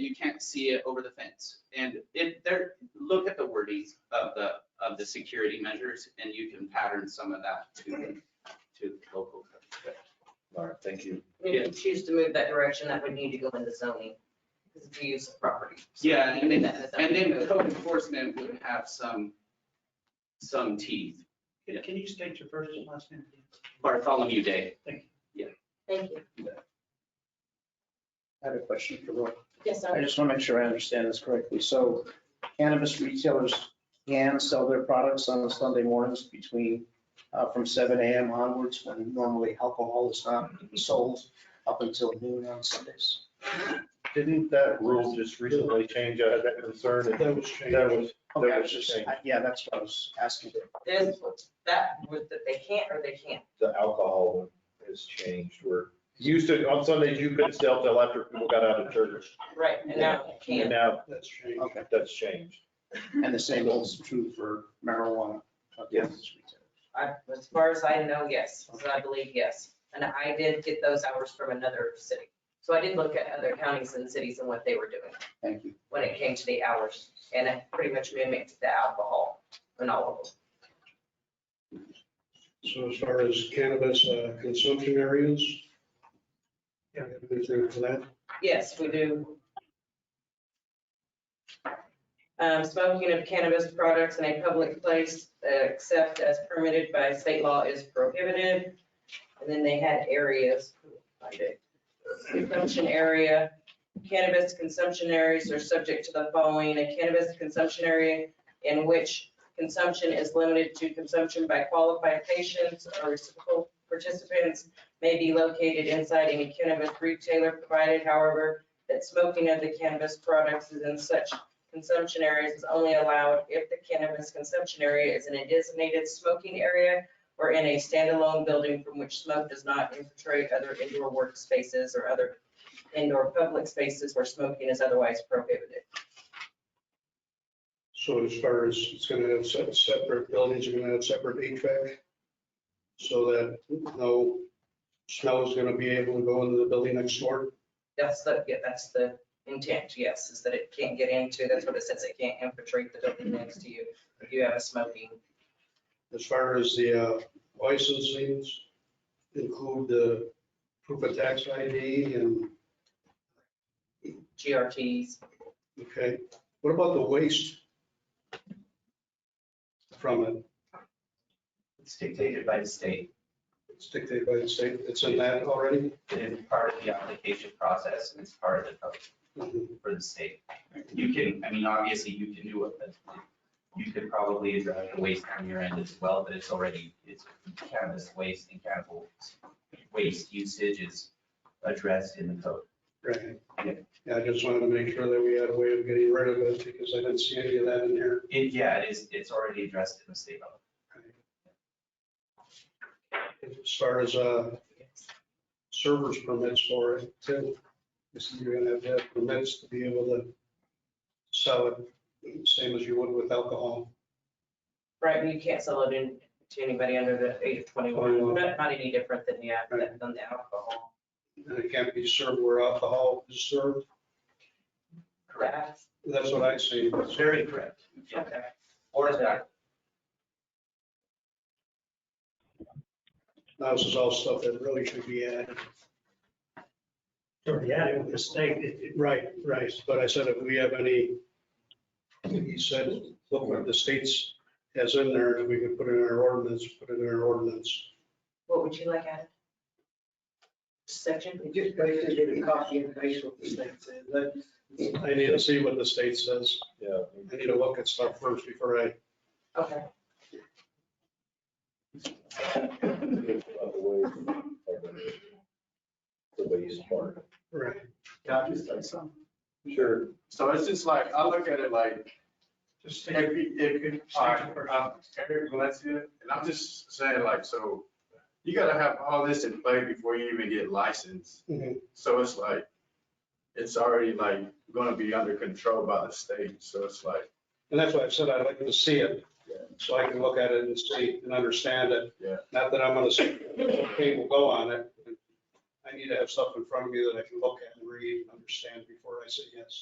you can't see it over the fence. And it, there, look at the wordings of the, of the security measures and you can pattern some of that to, to local. All right, thank you. If you choose to move that direction, that would need to go into zoning, because it's a use of property. So Yeah, and even then, that- and then code enforcement would have some, some teeth. Can can you state your first and last name? please? Bartholomew Day. Thank Thank you. I have a question for Roy. Yes, I sir. just want to make sure I understand this correctly. So cannabis retailers can sell their products on Sunday mornings between, uh, from seven AM onwards, when normally alcohol is not sold up until noon on Sundays. Didn't that rule just recently change? I had that concern. and That was That was, Okay, I that was was just, changed. I- yeah, that's what I was asking. There's, that, was that they can't or they can't. The alcohol one has changed where, you used to, on Sundays, you couldn't sell till after people got out of church. Right, and now they And can. now That's true. Okay, that's changed. and the same holds true for marijuana. uh, cannabis retailers. I- As far as I know, yes, as I believe, yes. And I did get those hours from another city. So I did look at other counties and cities and what they were doing Thank you. when it came to the hours. And it pretty much mimicked the alcohol in all of them. So as far as cannabis uh, consumption areas? Yeah, anything for that? Yes, we do. Um, smoking of cannabis products in a public place, uh, except as permitted by state law is prohibited. And then they had areas, find it. Consumption area, cannabis consumption areas are subject to the following, a cannabis consumption area in which consumption is limited to consumption by qualified patients or reciprocal participants may be located inside any cannabis retailer provided, however, that smoking of the cannabis products is in such consumption areas is only allowed if the cannabis consumption area is in a designated smoking area or in a standalone building from which smoke does not infiltrate other indoor workspaces or other indoor public spaces where smoking is otherwise prohibited. So as far as it's going to have se- separate buildings, are going to have separate HVAC? So that no smell is going to be able to go into the building next door? That's the, yeah, that's the intent, yes, is that it can't get into, that's what it says, it can't infiltrate the building next to you if you have a smoking As far as the uh, licensings, include the proof of tax ID and, GRTs. okay, what about the waste? From it, It's dictated by the state. it's dictated by the state, it's in that already? It is part of the application process and it's part of the code for the state. You can, I mean, obviously you can do it, but you could probably address the waste on your end as well, but it's already, it's cannabis waste and cannibal waste usage is addressed in the code. Right. Yeah. Yeah, I just wanted to make sure that we had a way of getting rid of it because I didn't see any of that in here. It, yeah, it is, it's already addressed in the state level. As far as uh, servers permits for it, too. You see, you're gonna have to have permits to be able to sell it, same as you would with alcohol. Right, and you can't sell it in to anybody under the age of twenty-one, not, not any different than, yeah, than than the alcohol. and it can't be served where alcohol is served. Correct. That's what I see. Very correct. Yeah. Okay. Or that. Now, this is all stuff that really should be added. you. Yeah, it was a mistake. It- it- Right, right. But I said, if we have any, you said, look what the states has in there, and we could put it in our ordinance, put it in our ordinance. What would you like added? Section? Just basically get a copy and paste what the state says. That- I need to see what the state says. Yeah. I need to look at stuff first before I, Okay, It's about The way- the way it's part. right. Can I just say something? Sure. So it's just like, I look at it like, Just take if, you- if, you- State all right, first. uh, Eric Valencia, and I'm just saying like, so you gotta have all this in play before you even get licensed. Mhm. So it's like, it's already like gonna be under control by the state, so it's like, And that's why I said I'd like to see it, so I can look at it and see and understand it. Yeah. Not that I'm gonna say, okay, we'll go on it. I need to have stuff in front of me that I can look at and read and understand before I say yes.